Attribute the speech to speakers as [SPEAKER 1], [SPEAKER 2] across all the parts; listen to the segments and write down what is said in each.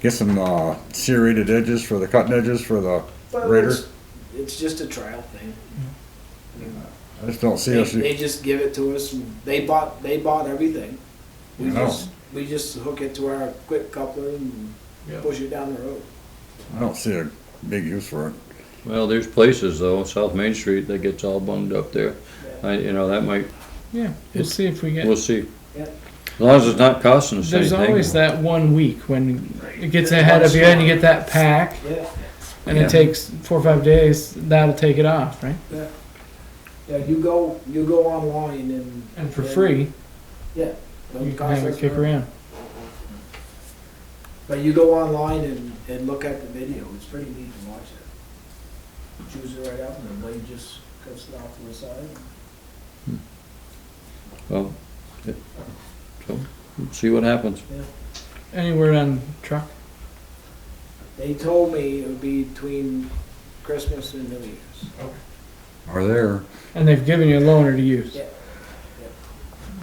[SPEAKER 1] get some, uh, serrated edges for the cutting edges for the
[SPEAKER 2] Well,
[SPEAKER 1] grader?
[SPEAKER 2] it's, it's just a trial thing.
[SPEAKER 1] I just don't see
[SPEAKER 2] They,
[SPEAKER 1] us,
[SPEAKER 2] they just give it to us. and They bought, they bought everything. We
[SPEAKER 1] I know.
[SPEAKER 2] just, we just hook it to our quick coupler and push it down the road.
[SPEAKER 1] I don't see a big use for it.
[SPEAKER 3] Well, there's places though, South Main Street, that gets all bunged up there. I, you know, that might,
[SPEAKER 4] Yeah, we'll see if we
[SPEAKER 3] we'll
[SPEAKER 4] get,
[SPEAKER 3] see.
[SPEAKER 2] Yeah.
[SPEAKER 3] As long as it's not costing us
[SPEAKER 4] there's always
[SPEAKER 3] anything.
[SPEAKER 4] that one week when it gets ahead of you and you get that pack
[SPEAKER 2] Yeah,
[SPEAKER 4] and
[SPEAKER 3] Yeah.
[SPEAKER 4] it takes four or five days, that'll take it off, right?
[SPEAKER 2] yeah, you go, you go online and.
[SPEAKER 4] And for free,
[SPEAKER 2] don't
[SPEAKER 4] you can
[SPEAKER 2] cost
[SPEAKER 4] have
[SPEAKER 2] us
[SPEAKER 4] it kick
[SPEAKER 2] nothing.
[SPEAKER 4] around.
[SPEAKER 2] But you go online and, and look at the video, it's pretty neat to watch it. Choose it right out and the blade just cuts it off to the side.
[SPEAKER 3] Well, yeah. So, we'll See what happens.
[SPEAKER 4] Anywhere on truck,
[SPEAKER 2] They told me it would be between Christmas and New Year's.
[SPEAKER 1] Are there,
[SPEAKER 4] and they've given you a loaner to use.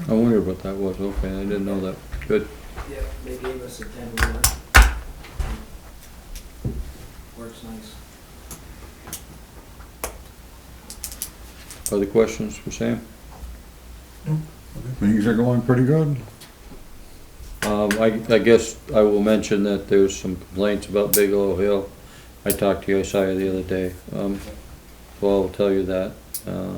[SPEAKER 3] I wondered what that was. Okay, I didn't know that. Good.
[SPEAKER 2] Yeah, they gave us a ten wheeler. Works nice.
[SPEAKER 3] Other questions for Sam?
[SPEAKER 1] things are going pretty good.
[SPEAKER 3] Um, I, I guess I will mention that there's some complaints about Bigelow Hill. I talked to Yosiah the other day, um, so I'll tell you that. Uh,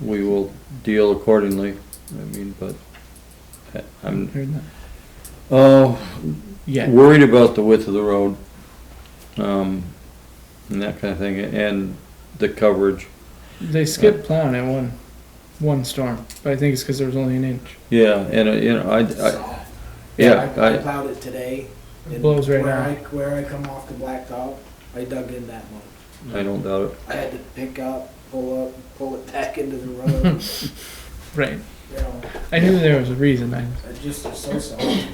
[SPEAKER 3] We will deal accordingly, I mean, but I- I'm,
[SPEAKER 4] Heard that?
[SPEAKER 3] oh,
[SPEAKER 4] Yeah,
[SPEAKER 3] worried about the width of the road, um, and that kind of thing, and the coverage.
[SPEAKER 4] they skipped plowing at one, one storm, but I think it's because there was only an inch.
[SPEAKER 3] Yeah, and, uh, you know, I, I,
[SPEAKER 2] Soft.
[SPEAKER 3] yeah,
[SPEAKER 2] I
[SPEAKER 3] I,
[SPEAKER 2] plowed it today.
[SPEAKER 4] It
[SPEAKER 2] and
[SPEAKER 4] blows right
[SPEAKER 2] where
[SPEAKER 4] now.
[SPEAKER 2] I- Where I come off the blacktop, I dug in that much.
[SPEAKER 3] I don't doubt it.
[SPEAKER 2] I had to pick up, pull up, pull it back into the road,
[SPEAKER 4] Right.
[SPEAKER 2] you know.
[SPEAKER 4] I knew there was a reason. I,
[SPEAKER 2] It just is so soft.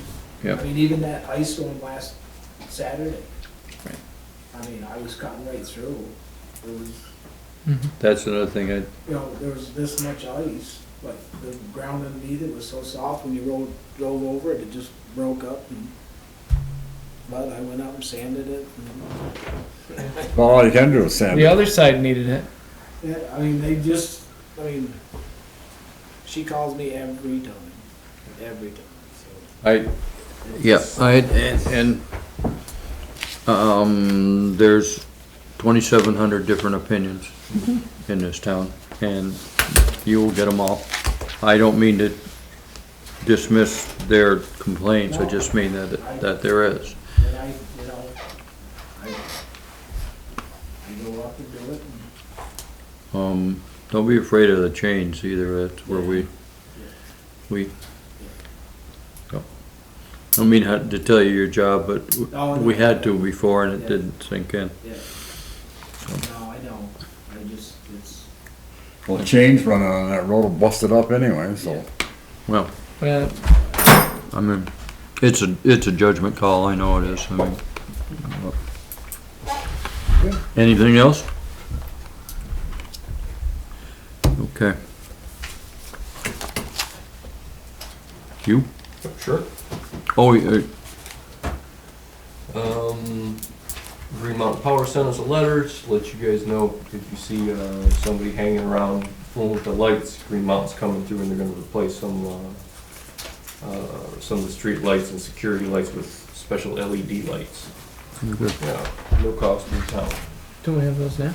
[SPEAKER 3] Yeah.
[SPEAKER 2] I mean, even that ice storm last Saturday.
[SPEAKER 4] Right.
[SPEAKER 2] I mean, I was cutting right through. There was,
[SPEAKER 3] That's another thing I,
[SPEAKER 2] you know, there was this much ice, but the ground underneath it was so soft when you rolled, drove over it, it just broke up and. But I went out and sanded it and,
[SPEAKER 1] Well, all you can do is sand
[SPEAKER 4] the
[SPEAKER 1] it.
[SPEAKER 4] other side needed it.
[SPEAKER 2] yeah, I mean, they just, I mean, she calls me every time, every time, so.
[SPEAKER 3] I,
[SPEAKER 2] it's
[SPEAKER 3] Yeah,
[SPEAKER 2] just-
[SPEAKER 3] I, and, and, um, there's twenty-seven hundred different opinions in this town, and you will get them all. I don't mean to dismiss their complaints, I just mean that, that there is.
[SPEAKER 2] And I, you know, I, I go up and do it, and
[SPEAKER 3] Um, don't be afraid of the change either, that's where we, we, I don't mean how- to tell you your job, but
[SPEAKER 2] No,
[SPEAKER 3] we had to before and it
[SPEAKER 2] oh, Yeah.
[SPEAKER 3] didn't sink in.
[SPEAKER 2] no, I don't, I just, it's,
[SPEAKER 1] Well, the chains running on that road will bust it up anyway, so.
[SPEAKER 3] Well,
[SPEAKER 4] Well,
[SPEAKER 3] I mean, it's a, it's a judgment call, I know it is, I mean. Anything else? Okay. You?
[SPEAKER 5] Sure.
[SPEAKER 3] Oh, uh,
[SPEAKER 5] Um, Green Mountain Power sent us a letter to let you guys know if you see uh, somebody hanging around fooling with the lights, Green Mountain's coming through and they're gonna replace some, uh, uh, some of the street lights and security lights with special LED lights.
[SPEAKER 3] Okay.
[SPEAKER 5] Yeah, no cost to the town.
[SPEAKER 4] don't we have those now?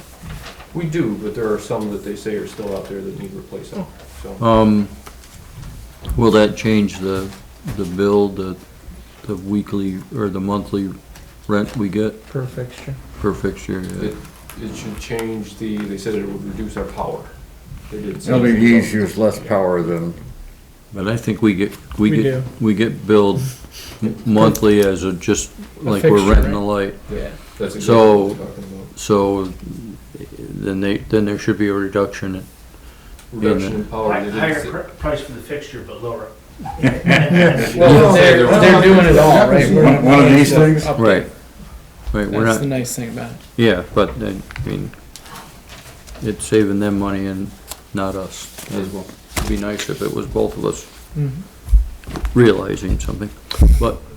[SPEAKER 5] We do, but there are some that they say are still out there that need replacing, so.
[SPEAKER 3] um, will that change the, the bill, the, the weekly or the monthly rent we get
[SPEAKER 4] Per fixture.
[SPEAKER 3] per fixture? Yeah.
[SPEAKER 5] It it should change the, they said it would reduce our power. They did say
[SPEAKER 1] It'll be
[SPEAKER 5] something about-
[SPEAKER 1] easy, use less power than,
[SPEAKER 3] But I think we get, we get,
[SPEAKER 4] We do.
[SPEAKER 3] we get billed m- monthly as a, just
[SPEAKER 4] A
[SPEAKER 3] like we're
[SPEAKER 4] fixture,
[SPEAKER 3] renting
[SPEAKER 4] right?
[SPEAKER 3] a light.
[SPEAKER 5] Yeah, that's exactly
[SPEAKER 3] So-
[SPEAKER 5] what I'm talking about.
[SPEAKER 3] So then they, then there should be a reduction.
[SPEAKER 5] reduction in
[SPEAKER 3] Oh,
[SPEAKER 5] power.
[SPEAKER 6] Hi-
[SPEAKER 5] they didn't
[SPEAKER 6] Higher
[SPEAKER 5] say-
[SPEAKER 6] pr- price for the fixture, but lower.
[SPEAKER 4] Well, they're,
[SPEAKER 5] they're-
[SPEAKER 4] they're doing it all, Oh, right? We're-
[SPEAKER 1] one one of these things?
[SPEAKER 4] Up-
[SPEAKER 3] Right. Right, we're
[SPEAKER 4] That's the
[SPEAKER 3] not,
[SPEAKER 4] nice thing about it.
[SPEAKER 3] yeah, but uh, I mean, it's saving them money and not us as well. It'd be nice if it was both of us
[SPEAKER 4] Mhm.
[SPEAKER 3] realizing something, but